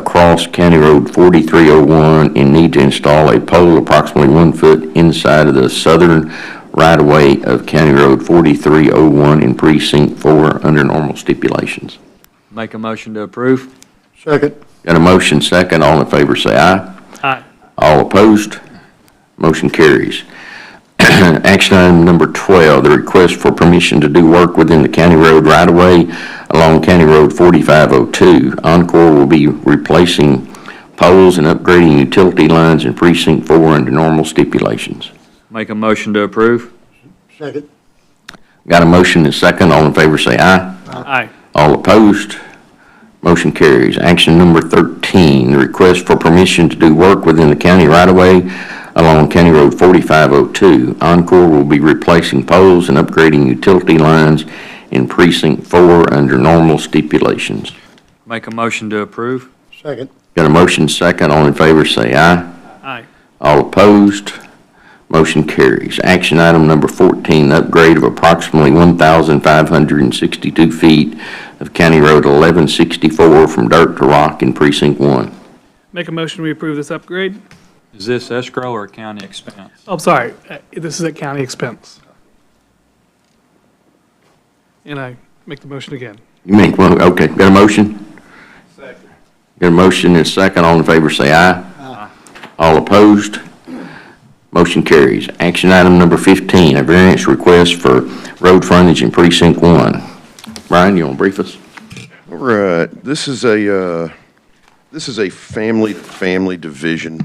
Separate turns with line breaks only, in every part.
Falls County Road 4301 and need to install a pole approximately one foot inside of the southern right-of-way of County Road 4301 in Precinct 4 under normal stipulations.
Make a motion to approve.
Second.
Got a motion second, all in favor say aye.
Aye.
All opposed? Motion carries. Action item number 12, the request for permission to do work within the county road right-of-way along County Road 4502. Encore will be replacing poles and upgrading utility lines in Precinct 4 under normal stipulations.
Make a motion to approve.
Second.
Got a motion and second, all in favor say aye.
Aye.
All opposed? Motion carries. Action number 13, the request for permission to do work within the county right-of-way along County Road 4502. Encore will be replacing poles and upgrading utility lines in Precinct 4 under normal stipulations.
Make a motion to approve.
Second.
Got a motion second, all in favor say aye.
Aye.
All opposed? Motion carries. Action item number 14, upgrade of approximately 1,562 feet of County Road 1164 from dirt to rock in Precinct 1.
Make a motion, we approve this upgrade.
Is this escrow or county expense?
Oh, I'm sorry, Uh, this is at county expense. And I make the motion again.
You make one, okay, got a motion? Second. Got a motion and a second, all in favor say aye. Aye. All opposed? Motion carries. Action item number 15, a variance request for road frontage in Precinct 1. Brian, you want to brief us?
All right, this is a, uh, this is a family-to-family division.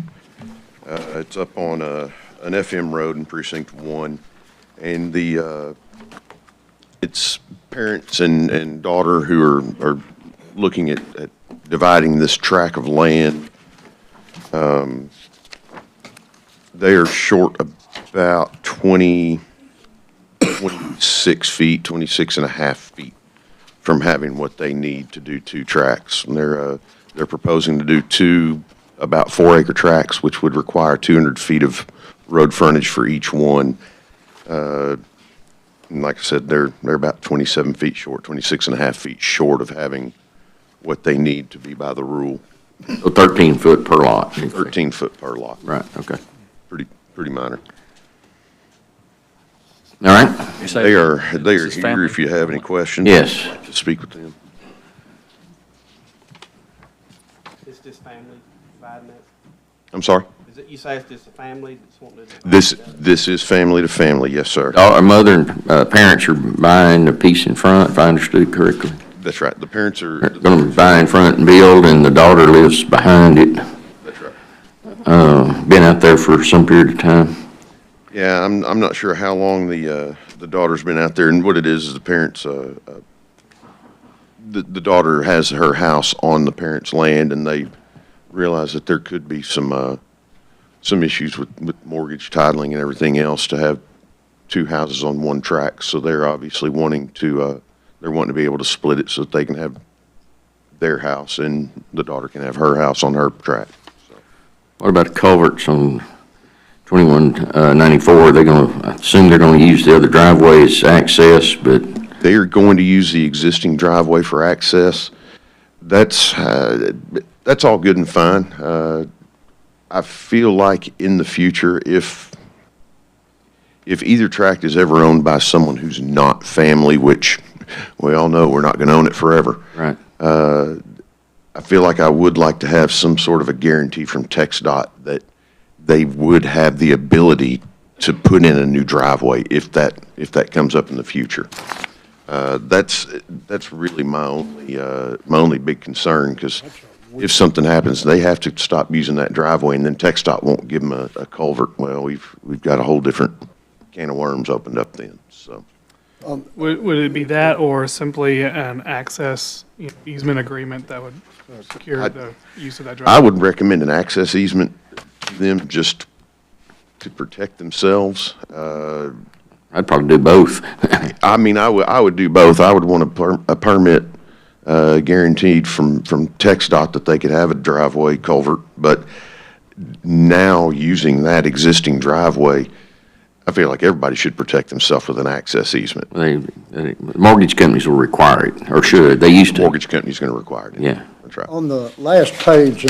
Uh, It's up on uh, an FM road in Precinct 1, and the, uh, it's parents and, and daughter who are, are looking at at dividing this tract of land. Um, They are short about 20, 26 feet, 26 and a half feet from having what they need to do two tracks. And they're, uh, they're proposing to do two about four acre tracks, which would require two hundred feet of road frontage for each one. Uh, and like I said, they're, they're about twenty-seven feet short, 26 and a half feet short of having what they need to be by the rule,
So 13 foot per lot.
thirteen foot per lot.
Right, okay.
Pretty, pretty minor.
All right,
They are, they are
This is family.
here if you have any questions.
Yes.
I'd like to Speak with them.
It's just family dividing that?
I'm sorry?
Is it, you say it's just a family that's wanting to? divide
This,
it up?
this is family to family, yes, sir.
our mother and uh, parents are buying a piece in front, if I understood correctly.
That's right. The parents are.
They're Gonna be buying front and build, and the daughter lives behind it.
That's right.
Uh, Been out there for some period of time.
Yeah, I'm, I'm not sure how long the, uh, the daughter's been out there, and what it is, is the parents, uh, uh, the, the daughter has her house on the parents' land, and they realize that there could be some, uh, some issues with, with mortgage titling and everything else to have two houses on one track, so they're obviously wanting to, uh, they're wanting to be able to split it so that they can have their house, and the daughter can have her house on her track.
What about the culverts on 2194? They're gonna, I assume they're gonna use the other driveway as access, but
They are going to use the existing driveway for access. That's, uh, that's all good and fine. Uh, I feel like in the future, if, if either tract is ever owned by someone who's not family, which we all know we're not going to own it forever,
Right.
Uh, I feel like I would like to have some sort of a guarantee from TxDOT that they would have the ability to put in a new driveway if that, if that comes up in the future. Uh, that's, that's really my only, uh, my only big concern, because if something happens, they have to stop using that driveway, and then TxDOT won't give them a, a culvert. Well, we've, we've got a whole different can of worms opened up then, so.
Would, would it be that or simply an access you know, easement agreement that would secure
I-
the use of that
I
driveway?
would recommend an access easement to them just to protect themselves. Uh,
I'd probably do both.
I mean, I would, I would do both. I would want a per, a permit, uh, guaranteed from, from TxDOT that they could have a driveway culvert. But now using that existing driveway, I feel like everybody should protect themselves with an access easement.
They, they- mortgage companies will require it, or should, they used to.
Mortgage company's gonna require it.
Yeah.
That's right.
On the last page